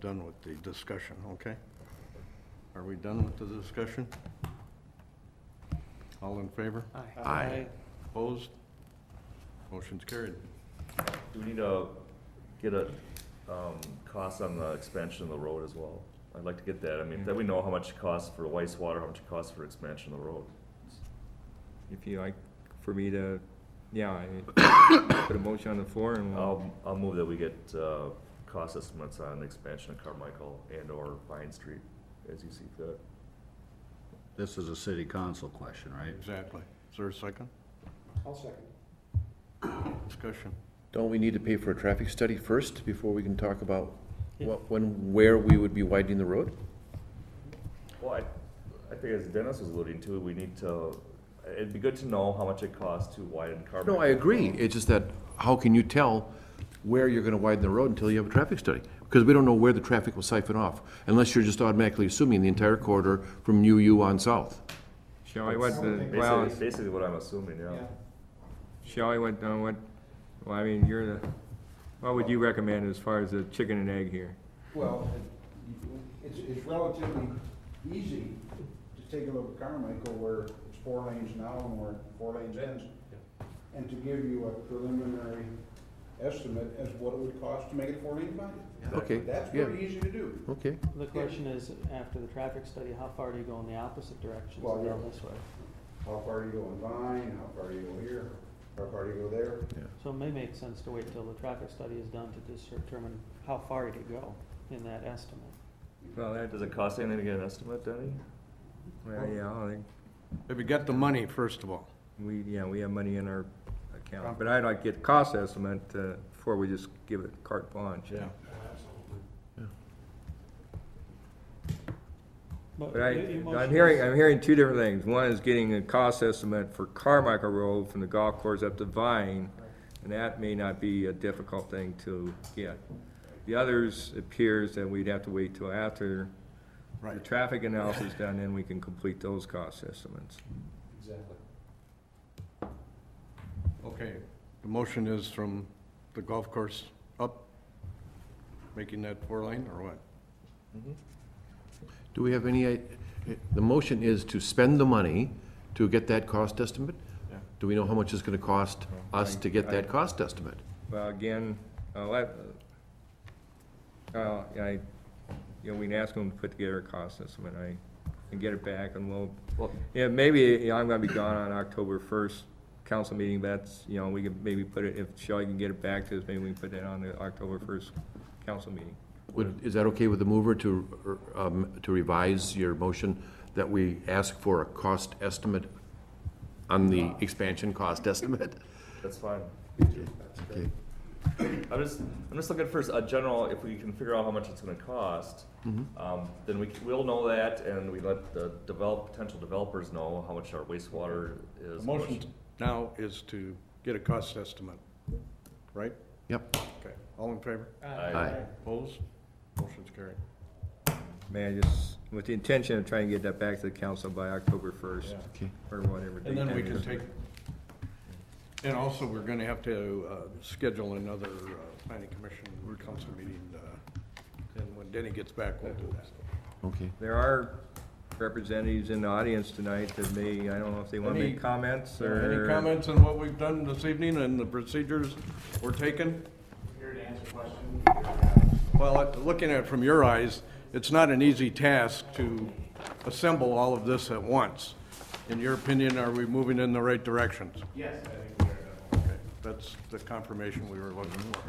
done with the discussion, okay? Are we done with the discussion? All in favor? Aye. Opposed? Motion's carried. Do we need to get a, um, cost on the expansion of the road as well? I'd like to get that, I mean, that we know how much it costs for wastewater, how much it costs for expansion of the road. If you like, for me to, yeah, I- put a motion on the floor Mm-hmm. and we'll, I'll, I'll move that we get, uh, cost estimates on expansion of Carmichael and or Vine Street, as you see fit. This is a city council question, right? Exactly. Is there a second? I'll second. Discussion. Don't we need to pay for a traffic study first before we can talk about what, when, where we would be widening the road? Well, I, I think as Dennis was alluding to, we need to, it'd be good to know how much it costs to widen Carmichael. No, I agree. It's just that, how can you tell where you're gonna widen the road until you have a traffic study? Because we don't know where the traffic will siphon off, unless you're just automatically assuming the entire corridor from UU on south. shall I what the, well, Basically, basically what I'm assuming, yeah. shall I what, uh, what, well, I mean, you're the, what would you recommend as far as the chicken and egg here? Well, it- it's, it's relatively easy to take a look at Carmichael where it's four lanes now and where four lanes ends. And to give you a preliminary estimate as what it would cost to make it four lane wide. Okay, That's yeah, pretty easy to do. okay. The question is, after the traffic study, how far do you go in the opposite direction, so Well, yeah. go this way? How far do you go in Vine, how far do you go here, how far do you go there? So it may make sense to wait till the traffic study is done to dis- determine how far to go in that estimate. Well, that, Does it cost anything to get an estimate, Denny? well, yeah, I think Have you got the money, first of all? we, yeah, we have money in our account, but I'd like to get cost estimate, uh, before we just give it carte blanche. But I, your- your I'm motion hearing, is- I'm hearing two different things. One is getting a cost estimate for Carmichael Road from the golf course up to Vine, and that may not be a difficult thing to get. The others appears that we'd have to wait till after the Right. traffic analysis is done, then we can complete those cost estimates. Exactly. Okay. The motion is from the golf course up, making that four lane, or what? Do we have any, i- the motion is to spend the money to get that cost estimate? Yeah. Do we know how much it's gonna cost us to get I- that cost estimate? Well, again, uh, let, uh, I, you know, we can ask them to put together a cost estimate, I, and get it back, and we'll, Well- yeah, maybe, you know, I'm gonna be gone on October first council meeting, that's, you know, we could maybe put it, if Shelley can get it back to us, maybe we can put that on the October first council meeting. Would, is that okay with the mover to, er, um, to revise your motion that we ask for a cost estimate on the expansion cost estimate? That's fine. Okay. I'm just, I'm just looking for a general, if we can figure out how much it's gonna cost, um, then we, c- we'll know that, and we let the develop, potential developers know how much our wastewater The is. how much- motion now is to get a cost estimate, right? Yep. Okay. All in favor? I- Opposed? Motion's carried. May I just, with the intention of trying to get that back to the council by October first, Okay. or whatever. And then date we that can is. take, and also, we're gonna have to uh, schedule another uh, planning commission or council meeting, uh, and when Denny gets back, we'll do that. Okay. There are representatives in the audience tonight that may, I don't know if they wanna Any- make comments, or. Any comments on what we've done this evening and the procedures we're taking? Here to answer questions. Well, at- looking at it from your eyes, it's not an easy task to assemble all of this at once. In your opinion, are we moving in the right directions? Yes, I think we are. That's the confirmation we were looking for,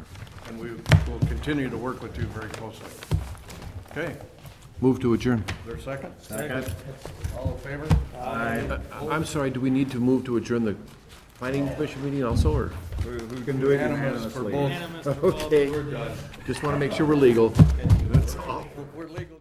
and we will continue to work with you very closely. Okay, Move to adjourn. is there a second? Second. All in favor? Uh, I'm sorry, do we need to move to adjourn the planning commission meeting also, or? Who who can do it Unanimous for unanimously? both. Okay. Just want to make sure we're legal. We're legal.